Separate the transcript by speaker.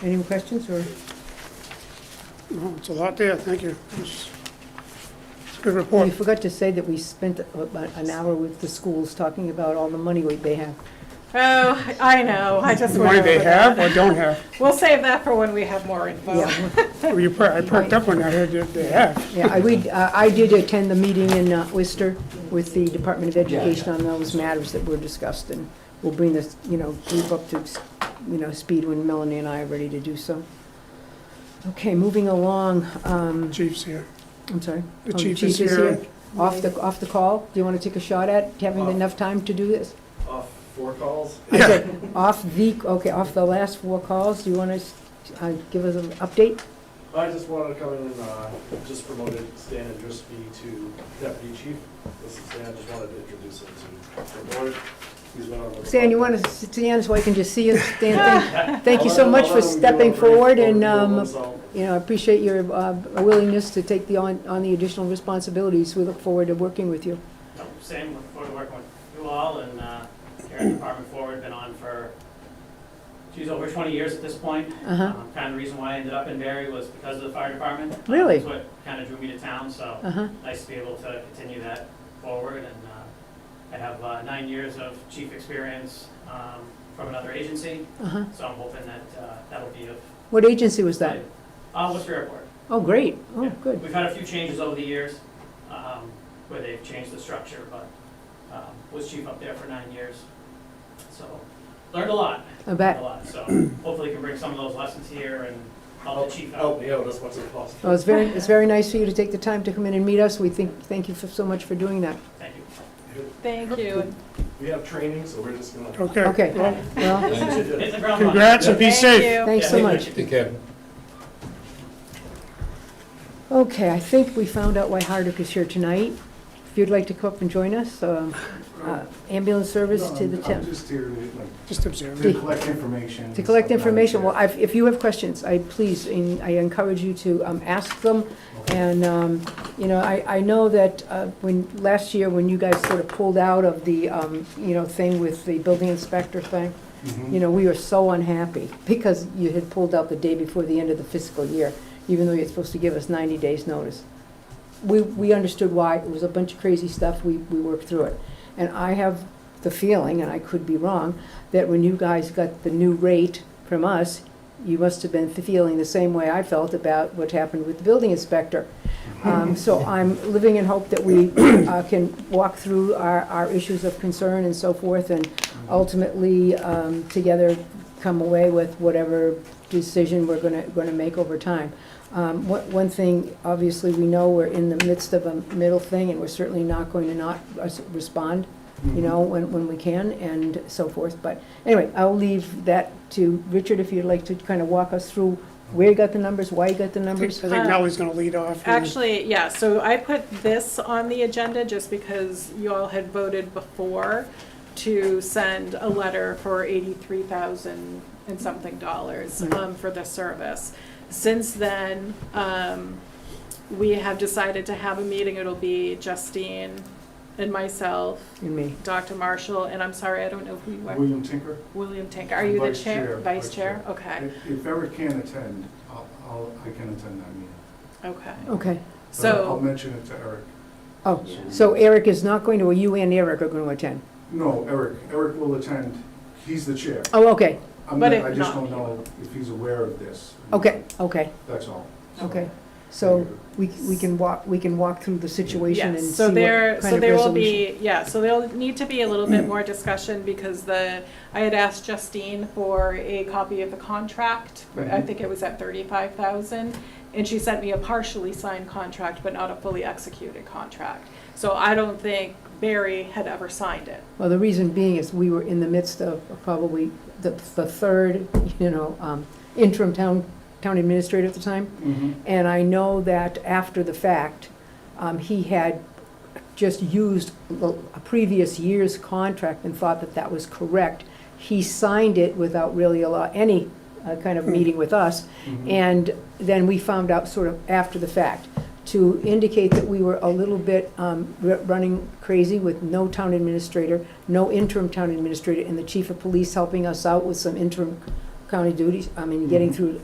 Speaker 1: Any questions or,
Speaker 2: No, it's a lot there, thank you. It's it's a good
Speaker 1: we
Speaker 2: report.
Speaker 1: forgot to say that we spent about an hour with the schools talking about all the money we they have.
Speaker 3: Oh, I know, I just.
Speaker 2: Why
Speaker 3: went
Speaker 2: they
Speaker 3: over
Speaker 2: have
Speaker 3: that.
Speaker 2: or don't have.
Speaker 3: We'll save that for when we have more info.
Speaker 1: Yeah.
Speaker 2: Well, you per- I perked up when I heard that they have.
Speaker 1: Yeah, I, we, uh, I I did attend the meeting in uh, Worcester with the Department of Education on those matters that were discussed, and we'll bring this, you know, group up to, you know, speed when Melanie and I are ready to do so. Okay, moving along, um,
Speaker 2: Chief's here.
Speaker 1: I'm sorry.
Speaker 2: The
Speaker 1: Oh,
Speaker 2: chief is here.
Speaker 1: Off the, off the call, do you want to take a shot at having
Speaker 4: Off.
Speaker 1: enough time to do this?
Speaker 4: off four calls.
Speaker 1: I
Speaker 2: Yeah.
Speaker 1: said, Off the, okay, off the last four calls, do you want to give us an update?
Speaker 4: I just wanted to come in and, uh, just promoted Stan Andruski to deputy chief. This is Stan, I just wanted to introduce him to the board. He's been on the-
Speaker 1: Stan, you want to stand so I can just see you? Stan, thank, thank you so much for stepping forward and, um, you know, I appreciate your uh, willingness to take the, on, on the additional responsibilities. We look forward to working with you.
Speaker 5: No, Same, look forward to working with you all and uh, Karen Department Forward, been on for, she's over 20 years at this point.
Speaker 1: Uh-huh,
Speaker 5: Um, Kind of the reason why I ended up in Barry was because of the fire department. Um,
Speaker 1: Really?
Speaker 5: That's what kind of drew me to town, so
Speaker 1: uh-huh.
Speaker 5: nice to be able to continue that forward. And uh, I have uh, nine years of chief experience um, from another agency,
Speaker 1: Uh-huh.
Speaker 5: so I'm hoping that uh, that'll be of.
Speaker 1: What agency was that?
Speaker 5: Uh, Worcester Airport.
Speaker 1: Oh, great. Oh,
Speaker 5: Yeah.
Speaker 1: good.
Speaker 5: We've had a few changes over the years, um, where they've changed the structure, but, um, was chief up there for nine years. So, learned a lot,
Speaker 1: I
Speaker 5: learned a
Speaker 1: bet.
Speaker 5: lot, so hopefully can bring some of those lessons here and help the chief
Speaker 6: Oh,
Speaker 4: Help
Speaker 5: out.
Speaker 4: me out as much as
Speaker 1: Well,
Speaker 4: possible.
Speaker 1: it's very, it's very nice for you to take the time to come in and meet us. We think, thank you for- so much for doing that.
Speaker 5: Thank you.
Speaker 3: Thank you.
Speaker 4: We have training, so we're just gonna.
Speaker 2: Okay.
Speaker 1: Okay.
Speaker 2: Well,
Speaker 1: Well,
Speaker 5: Hit
Speaker 4: Thank
Speaker 5: the ground running.
Speaker 2: Congrats and be
Speaker 3: Thank
Speaker 2: safe.
Speaker 3: you.
Speaker 1: thanks so
Speaker 5: Yeah.
Speaker 1: much. Okay, I think we found out why Hardwick is here tonight. If you'd like to come up and join us, um, uh, ambulance service to the town.
Speaker 6: just here to
Speaker 2: Just
Speaker 1: Dee.
Speaker 2: observe.
Speaker 6: collect information.
Speaker 1: To collect information, well, I've- if you have questions, I please, en- I encourage you to um, ask them. And, um, you know, I, I know that uh, when, last year, when you guys sort of pulled out of the, um, you know, thing with the building inspector thing, you know, we were so unhappy because you had pulled out the day before the end of the fiscal year, even though you're supposed to give us 90 days' notice. We, we understood why, it was a bunch of crazy stuff, we, we worked through it. And I have the feeling, and I could be wrong, that when you guys got the new rate from us, you must have been feeling the same way I felt about what happened with the building inspector. Um, So I'm living in hope that we uh, can walk through our, our issues of concern and so forth, and
Speaker 6: Mm-hmm.
Speaker 1: ultimately, um, together, come away with whatever decision we're gonna, gonna make over time. Um, One one thing, obviously, we know we're in the midst of a middle thing, and we're certainly not going to not res- respond you know, when, when we can and so forth. But anyway, I'll leave that to Richard, if you'd like to kind of walk us through where you got the numbers, why you got the
Speaker 2: I think
Speaker 1: numbers.
Speaker 2: I think Nellie's gonna lead off. and-
Speaker 3: Actually, yeah, so I put this on the agenda just because you all had voted before to send a letter for eighty-three thousand and something dollars
Speaker 1: Right.
Speaker 3: um, for this service. Since then, um, we have decided to have a meeting. It'll be Justine and myself,
Speaker 1: And me.
Speaker 3: Dr. Marshall, and I'm sorry, I don't know who you are.
Speaker 6: William Tinker,
Speaker 3: William Tank, are you the
Speaker 6: Vice
Speaker 3: chair?
Speaker 6: chair,
Speaker 3: Vice
Speaker 6: vice
Speaker 3: chair?
Speaker 6: chair.
Speaker 3: Okay,
Speaker 6: if if ever can attend, I'll- I'll, I can attend that meeting.
Speaker 3: okay.
Speaker 1: Okay.
Speaker 6: But I'll
Speaker 3: So,
Speaker 6: mention it to Eric.
Speaker 1: Oh, so Eric is not going to, or you and Eric are going to attend?
Speaker 6: No, Eric, Eric will attend, he's the chair.
Speaker 1: Oh, okay,
Speaker 6: I'm
Speaker 3: But
Speaker 6: not-
Speaker 3: if
Speaker 6: I just
Speaker 3: not,
Speaker 6: don't know if he's aware of this.
Speaker 1: okay, okay,
Speaker 6: That's all. So-
Speaker 1: okay. So we, we can walk, we can walk through the situation and
Speaker 3: yes,
Speaker 1: see
Speaker 3: so
Speaker 1: what
Speaker 3: there,
Speaker 1: kind
Speaker 3: so
Speaker 1: of
Speaker 3: there will
Speaker 1: resolution.
Speaker 3: be, yeah, so there'll need to be a little bit more discussion because the, I had asked Justine for a copy of the contract. I
Speaker 1: Mm-hmm.
Speaker 6: Mhm.
Speaker 3: think it was at thirty-five thousand, and she sent me a partially signed contract, but not a fully executed contract. So I don't think Barry had ever signed it.
Speaker 1: Well, the reason being is we were in the midst of probably the, the third, you know, um, interim town, town administrator at the time.
Speaker 6: Mhm.
Speaker 1: And I know that after the fact, um, he had just used l- a previous year's contract and thought that that was correct. He signed it without really a lot, any uh, kind of
Speaker 3: Hmm.
Speaker 1: meeting with us.
Speaker 6: Mhm.
Speaker 1: And then we found out sort of after the fact, to indicate that we were a little bit um, r- running crazy with no town administrator, no interim town administrator, and the chief of police helping us out with some interim county duties, I mean, getting through